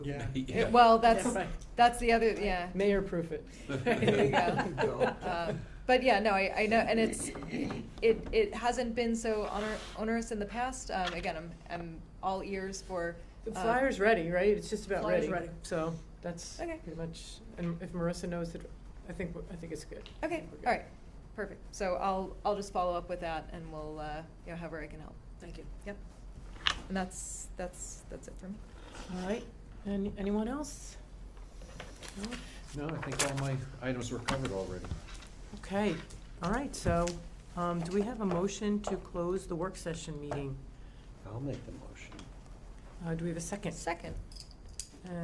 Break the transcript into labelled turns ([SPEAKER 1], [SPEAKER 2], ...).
[SPEAKER 1] Yeah.
[SPEAKER 2] Yeah.
[SPEAKER 3] Well, that's,
[SPEAKER 1] Right.
[SPEAKER 3] that's the other, yeah.
[SPEAKER 1] Mayor proof it.
[SPEAKER 3] There you go. Um, But yeah, no, I, I know, and it's, it, it hasn't been so oner- onerous in the past. Um, again, I'm, I'm all ears for.
[SPEAKER 1] The
[SPEAKER 3] um,
[SPEAKER 1] flyer's ready, right? It's just about
[SPEAKER 3] flyer's
[SPEAKER 1] ready.
[SPEAKER 3] ready.
[SPEAKER 1] So that's
[SPEAKER 3] Okay.
[SPEAKER 1] pretty much, and if Marissa knows that, I think, I think it's good. I
[SPEAKER 3] Okay,
[SPEAKER 1] think we're good.
[SPEAKER 3] all right, perfect. So I'll, I'll just follow up with that and we'll, uh, you know, however I can help.
[SPEAKER 4] Thank you.
[SPEAKER 3] Yep. And that's, that's, that's it for me.
[SPEAKER 1] All right, and anyone else? No?
[SPEAKER 2] No, I think all my items were covered already.
[SPEAKER 1] Okay, all right, so, um, do we have a motion to close the work session meeting?
[SPEAKER 2] I'll make the motion.
[SPEAKER 1] Uh, do we have a second?
[SPEAKER 3] Second.